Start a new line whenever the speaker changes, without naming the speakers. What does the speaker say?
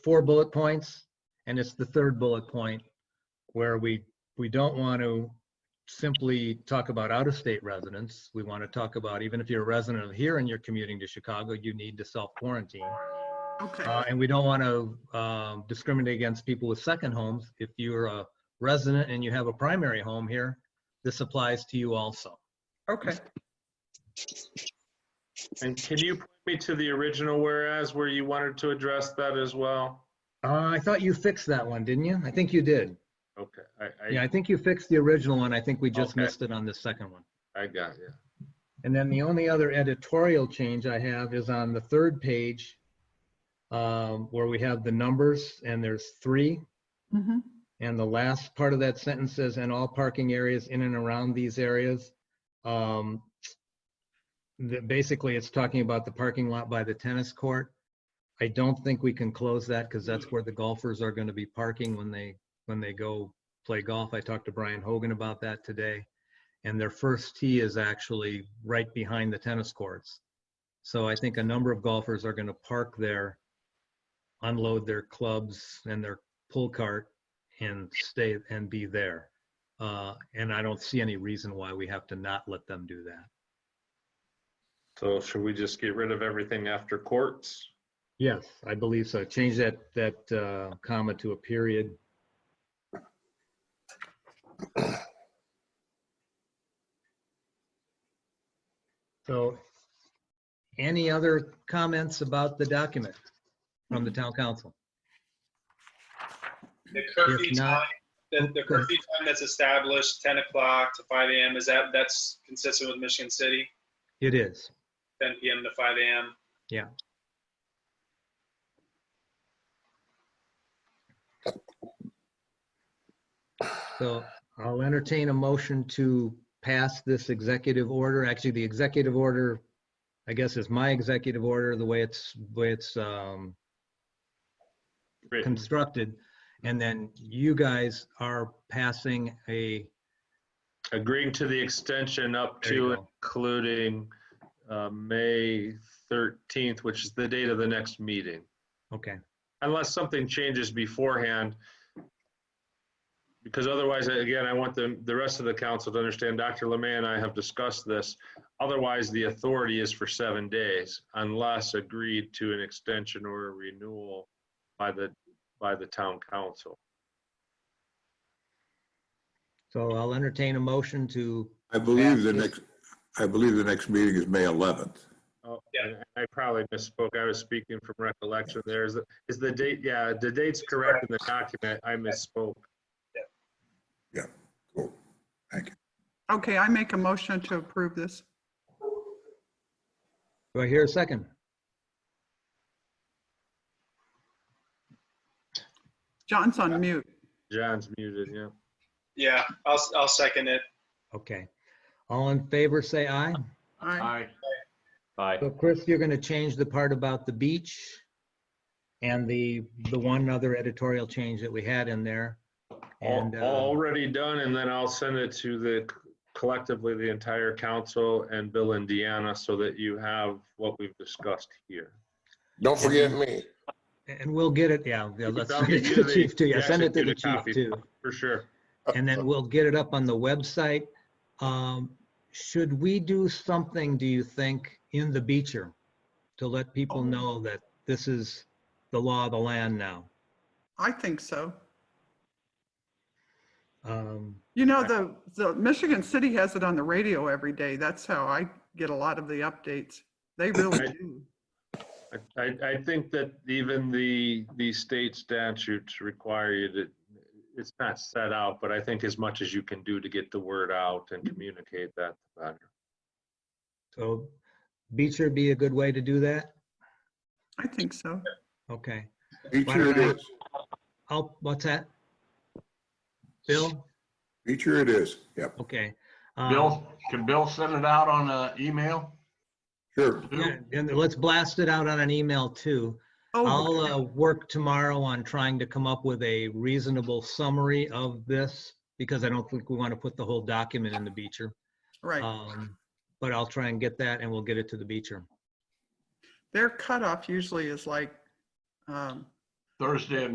four bullet points, and it's the third bullet point where we, we don't want to simply talk about out-of-state residents. We want to talk about, even if you're a resident of here and you're commuting to Chicago, you need to self-quarantine.
Okay,
Uh, And we don't want to um, discriminate against people with second homes. If you're a resident and you have a primary home here, this applies to you also.
okay.
And can you point me to the original whereas where you wanted to address that as well?
Uh, I thought you fixed that one, didn't you? I think you did.
Okay, I,
Yeah,
I,
I think you fixed the original one. I think we just
Okay.
missed it on the second one.
I got you.
And then the only other editorial change I have is on the third page um, where we have the numbers and there's three.
Mhm.
And the last part of that sentence says, and all parking areas in and around these areas. Um, that basically it's talking about the parking lot by the tennis court. I don't think we can close that because that's where the golfers are going to be parking when they, when they go play golf. I talked to Brian Hogan about that today. And their first tee is actually right behind the tennis courts. So I think a number of golfers are going to park there, unload their clubs and their pull cart and stay and be there. Uh, and I don't see any reason why we have to not let them do that.
So should we just get rid of everything after courts?
Yes, I believe so. Change that, that, uh, comma to a period. So any other comments about the document from the town council?
The curfew
If not- oh,
time, the, the curfew time that's established, ten o'clock to five AM, is that, that's consistent with Michigan City,
It is.
ten PM to five AM?
Yeah. So I'll entertain a motion to pass this executive order. Actually, the executive order, I guess is my executive order, the way it's, the way it's um,
Written.
constructed. And then you guys are passing a,
Agreeing to the extension up
There you
to
go.
including uh, May 13th, which is the date of the next meeting.
okay,
unless something changes beforehand. Because otherwise, again, I want the, the rest of the council to understand, Dr. Lemay and I have discussed this. Otherwise, the authority is for seven days unless agreed to an extension or a renewal by the, by the town council.
so I'll entertain a motion to,
I believe the
Yeah.
next, I believe the next meeting is May 11th.
Oh, and I probably misspoke. I was speaking from recollection. There's, is the date, yeah, the date's correct in the document. I misspoke.
Cool.
Okay, I make a motion to approve this.
do I hear a second?
John's on mute.
John's muted, yeah.
Yeah, I'll, s- I'll second it.
Okay. All in favor, say aye.
I,
So Chris, you're going to change the part about the beach and the, the one other editorial change that we had in there.
Al-
And, uh,
Already done, and then I'll send it to the collectively, the entire council and Bill and Deanna so that you have what we've discussed here.
Don't forget me.
and we'll get it, yeah, yeah,
You
let's
can
send it
probably
to
do
the
the-
chief too. Yeah,
the
send it to the
executed
chief
copy.
too.
For sure.
And then we'll get it up on the website. Um, Should we do something, do you think, in the beacher to let
Oh.
people know that this is the law of the land now?
I think so.
Um,
You know, the, the Michigan City has it on the radio every day. That's how I get a lot of the updates. They really
Right.
do.
I- I, I think that even the, the state statutes require you to, it's not set out, but I think as much as you can do to get the word out and communicate that, the better.
So beacher be a good way to do that?
I think so.
Okay.
Feature it is.
I'll, what's that? Bill?
Feature it is. Yep,
Okay. Um,
Bill, can Bill send it out on an email?
sure.
yeah, And let's blast it out on an email too. I'll
Oh,
uh, work tomorrow on trying to come up with a reasonable summary of this because I don't think we want to put the whole document in the Beecher.
right.
Um, But I'll try and get that and we'll get it to the Beecher.
Their cutoff usually is like um,
Thursday at